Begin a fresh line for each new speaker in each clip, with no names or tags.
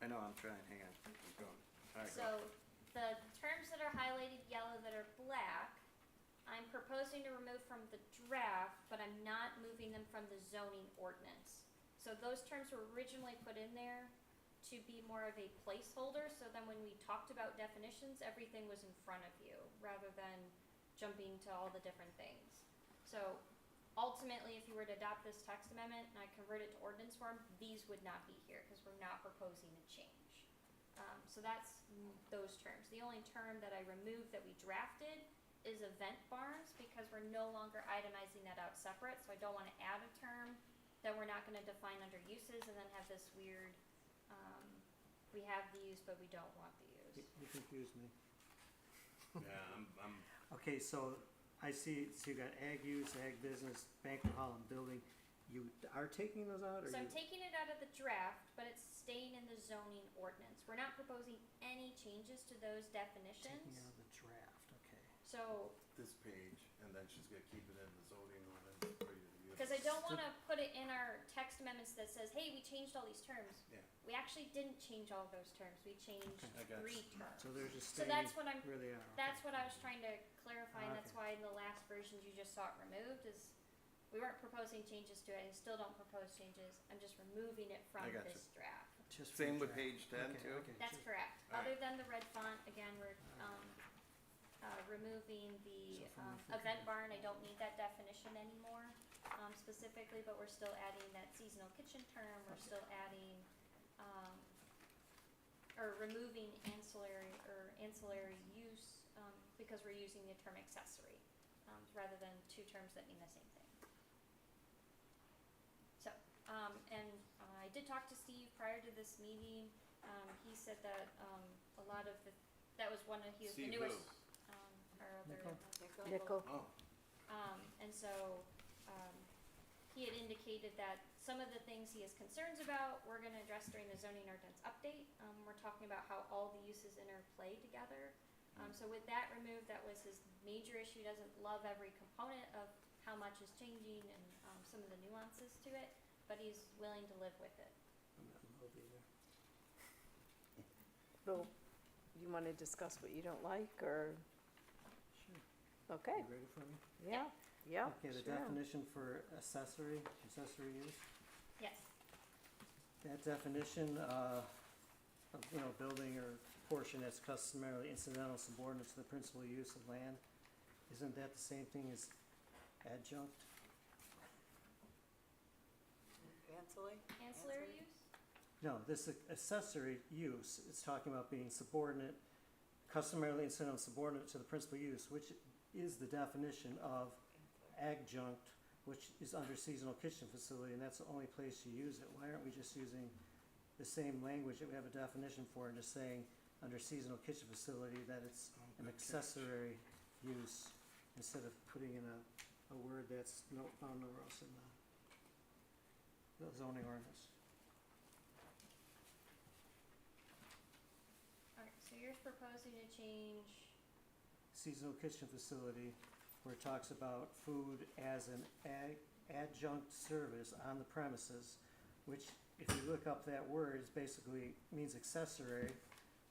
I know, I'm trying, hang on, keep going. All right, go.
So the terms that are highlighted yellow that are black, I'm proposing to remove from the draft, but I'm not moving them from the zoning ordinance. So those terms were originally put in there to be more of a placeholder, so then when we talked about definitions, everything was in front of you, rather than jumping to all the different things. So ultimately, if you were to adopt this text amendment and I convert it to ordinance form, these would not be here, because we're not proposing a change. Um, so that's m- those terms. The only term that I removed that we drafted is event barns because we're no longer itemizing that out separate. So I don't want to add a term that we're not going to define under uses and then have this weird, um, we have the use, but we don't want the
You
use.
you confused me.
Yeah, I'm, I'm,
Okay, so I see, so you got ag use, ag business, banquet hall and building. You are taking those out or
So I'm
you?
taking it out of the draft, but it's staying in the zoning ordinance. We're not proposing any changes to those
Taking out
definitions.
the draft, okay.
So
this page, and then she's gonna keep it in the zoning ordinance for you to use.
Because I don't want to put it in our text amendments that says, hey, we changed all these terms.
Yeah.
We actually didn't change all those terms, we changed
Okay.
I got
three terms.
So they're just
So
staying
that's what I'm,
where they are. okay.
that's what I was trying to clarify, and that's
Okay.
why in the last versions you just saw it removed, is we weren't proposing changes to it, and still don't propose changes, I'm just removing it from
I gotcha.
this draft.
Just for
Same
the
with
draft.
page ten
Okay,
too?
okay,
That's
just-
correct,
All right.
other than the red font, again, we're, um, uh, removing the,
So from
um,
the food
event
condition-
barn, I don't need that definition anymore, um, specifically, but we're still adding that seasonal kitchen term, we're
Okay.
still adding, um, or removing ancillary, or ancillary use, um, because we're using the term accessory, um, rather than two terms that mean the same thing. So, um, and uh, I did talk to Steve prior to this meeting, um, he said that, um, a lot of the, that was one of, he was the
Steve who?
newest, um, our other.
Nicole.
Nickel.
Oh,
Um, and so, um, he had indicated that some of the things he has concerns about, we're gonna address during the zoning ordinance update. Um, we're talking about how all the uses interplay together.
Mm.
Um, so with that removed, that was his major issue, He doesn't love every component of how much is changing and, um, some of the nuances to it, but he's willing to live with it.
I'm not in love either.
Bill, you want to discuss what you don't like, or,
Sure.
okay,
You ready for me?
yeah, yeah,
Okay, the
sure.
definition for accessory, accessory use.
Yes,
That definition, uh, of, you know, building or portion that's customarily incidental subordinate to the principal use of land, isn't that the same thing as adjunct?
Ancillary?
ancillary
Ancillary?
use?
No, this accessory use is talking about being subordinate, customarily incidental subordinate to the principal use, which is the definition of adjunct, which is under seasonal kitchen facility, and that's the only place you use it. Why aren't we just using the same language that we have a definition for and just saying under seasonal kitchen facility that it's an accessory use instead of putting in a, a word that's no, found nowhere else in the the zoning ordinance?
Okay, so you're proposing to change
seasonal kitchen facility where it talks about food as an ag- adjunct service on the premises, which if you look up that word, is basically means accessory,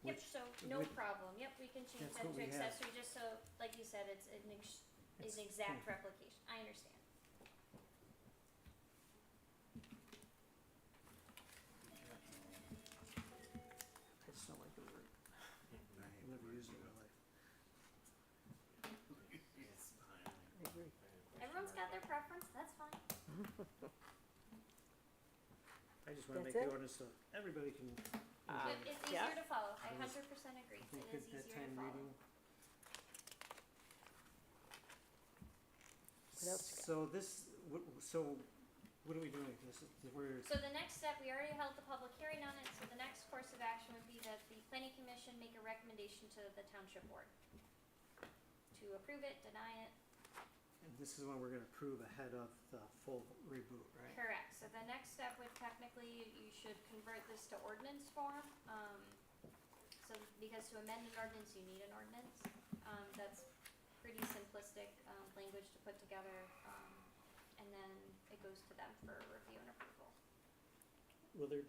Yep,
which,
so, no
which-
problem, yep, we can change
That's
that
what
to
we have.
accessory, just so, like you said, it's an ex- is
It's-
an exact replication, I understand.
I just don't like the word,
I
I've
hate
never used it in
words,
my life.
but it's fine.
I agree.
I have a
Everyone's got
question mark,
their preference, that's fine.
I just wanna
That's
make the
it?
ordinance so everybody can
Ah.
enjoy
It-
it.
It's
yeah.
easier to follow, I
Um, It is-
hundred percent agree,
Think
it is
at that
easier to
time
follow.
reading.
What else you got?
So this, what, so what are we doing? This is, we're,
So the next step, we already held the public hearing on it, so the next course of action would be that the planning commission make a recommendation to the township board. To approve it, deny it,
and this is when we're gonna approve ahead of the full reboot, right?
Correct, so the next step would technically, you should convert this to ordinance form, um, so, because to amend an ordinance, you need an ordinance. Um, that's pretty simplistic, um, language to put together, um, and then it goes to them for review and approval.
Will there be